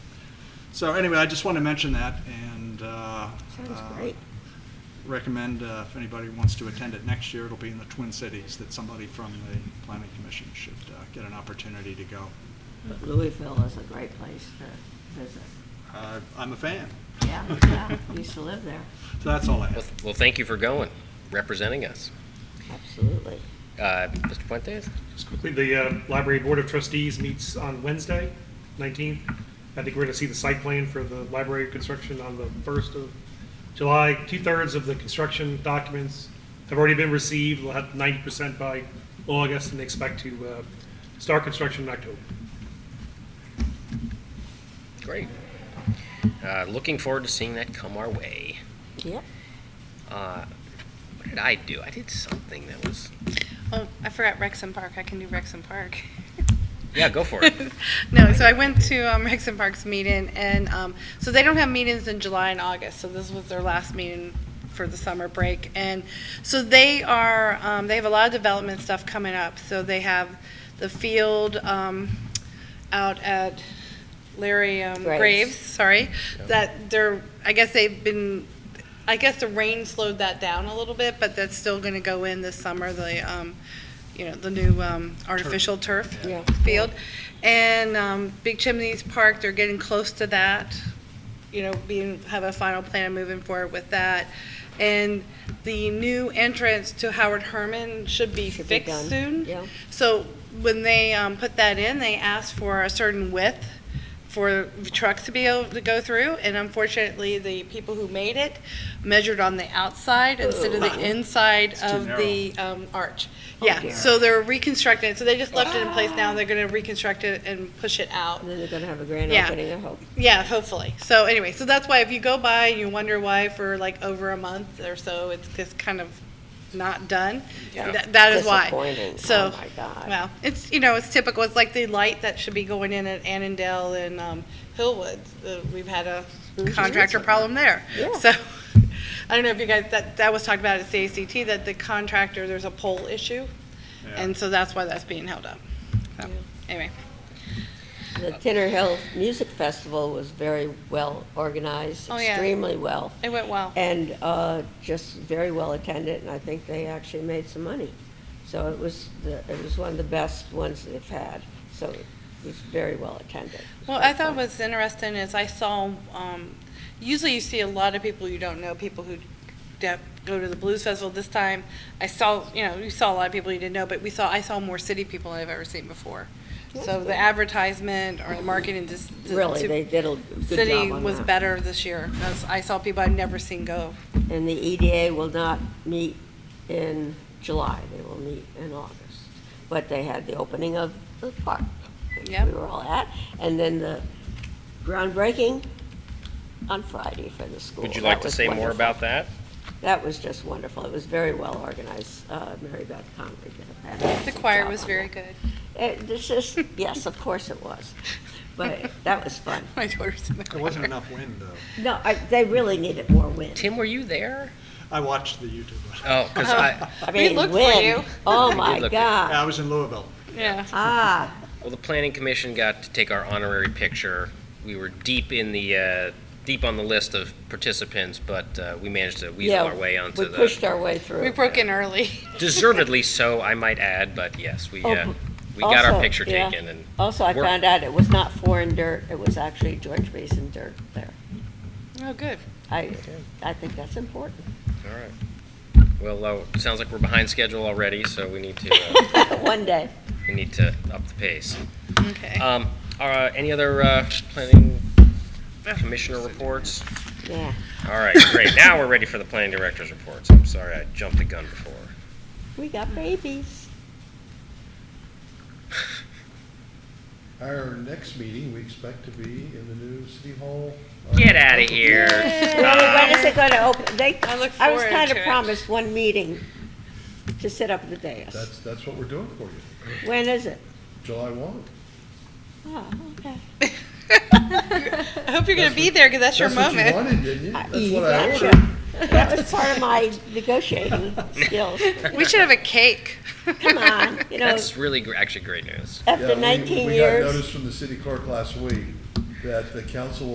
So anyway, I just want to mention that and uh, Sounds uh, great. recommend uh, if anybody wants to attend it next year, it'll be in the Twin Cities, that somebody from the planning commission should uh, get an opportunity to go. But Louisville is a great place to visit. Uh, I'm a fan. Yeah, yeah, used to live there, So that's all I Well, have. well, thank you for going, representing us. absolutely. Uh, Mr. Fuentes? Just quickly, the uh, Library Board of Trustees meets on Wednesday, 19th. I think we're going to see the site plan for the library construction on the 1st of July. Two-thirds of the construction documents have already been received. We'll have 90% by August and expect to uh, start construction in October. Great. Uh, Looking forward to seeing that come our way. Yep. Uh, What did I do? I did something that was, Oh, I forgot Rexham Park. I can do Rexham Park. yeah, go for it. No, so I went to um, Rexham Park's meeting, and um, so they don't have meetings in July and August, so this was their last meeting for the summer break. And so they are, um, they have a lot of development stuff coming up. So they have the field um, out at Larry um, Graves. Graves, sorry, that they're, I guess they've been, I guess the rain slowed that down a little bit, but that's still going to go in this summer, the, um, you know, the new um, artificial turf Yeah. field. And um, Big Chimneys Park, they're getting close to that, you know, being, have a final plan moving forward with that. And the new entrance to Howard Herman should be Should be done, fixed soon. yeah. So when they um, put that in, they asked for a certain width for trucks to be able to go through. And unfortunately, the people who made it measured on the outside instead of the inside It's too of the um, arch. Oh, Yeah, dear. so they're reconstructing it. So they just left it in place now. They're going to reconstruct it and push it out. And then they're gonna have a grand Yeah. opening, I hope. Yeah, hopefully. So anyway, so that's why if you go by and you wonder why for like over a month or so, it's just kind of not done. Yeah. That, that is why. Disappointing. So, Oh, my God. Well, it's, you know, it's typical. It's like the light that should be going in at Annandale and um, Hillwood. Uh, We've had a contractor problem there. Mm-hmm. Yeah. So I don't know if you guys, that, that was talked about at CACT, that the contractor, there's a pole issue. And so that's why that's being held up. So, anyway. The Tinner Hill Music Festival was very well organized, Oh, yeah. Oh. extremely well, It went well. and uh, just very well attended, and I think they actually made some money. So it was, the it was one of the best ones they've had, so it was very well attended. Well, I thought what's interesting is I saw, um, usually you see a lot of people you don't know, people who de- go to the blues festival. This time, I saw, you know, you saw a lot of people you didn't know, but we saw, I saw more city people than I've ever seen before. So the advertisement or the marketing just. to- Really, to they did a good job City on was that. better this year. 'cause I saw people I'd never seen go. And the EDA will not meet in July, they will meet in August. But they had the opening of the park, which Yep. we were all at, and then the groundbreaking on Friday for the school. Would you That like to was say more wonderful. about that? That was just wonderful, it was very well organized, Uh, Mary Beth Conley did a The fantastic choir job was on very that. good. It- This is, yes, of course it was, but that was fun. My daughter's in the choir. There wasn't enough wind, though. No, I- they really needed more wind. Tim, were you there? I watched the YouTube. Oh, because I, I We mean, looked for wind. you. Oh, did my look for you. God. Yeah, I was in Louisville. Yeah. Ah, well, the planning commission got to take our honorary picture. We were deep in the, uh, deep on the list of participants, but uh, we managed to Yeah, weasel our way onto We the, pushed our way We through. broke in early. deservedly so, I might add, but yes, we, Oh, uh, but we got our also, picture yeah. taken and Also, I We're- found out it was not foreign dirt, it was actually George Mason dirt there. Oh, good. I, I think that's important. All right. Well, uh, it sounds like we're behind schedule already, so we need to, uh, One day. we need to up the pace. Okay. Um, are, uh, any other, uh, planning commissioner reports? Yeah. All right, great. Now we're ready for the planning director's reports. I'm sorry, I jumped the gun before. We got babies. Our next meeting, we expect to be in the new city hall. uh, Get out of here. When is it gonna open? They, I look I was forward kind of to it. promised one meeting to sit up at the dais. That's, that's what we're doing for you, When is it? July one. Oh, okay. I hope you're going to That's be there because that's your moment. That's what you wanted, didn't you? I- That's you what I gotcha. ordered. That was part of my negotiating skills. We should have a cake. Come on, you know, That's really, gr- actually great news. Yeah, after we- 19 We got years. notice from the city clerk last week that the council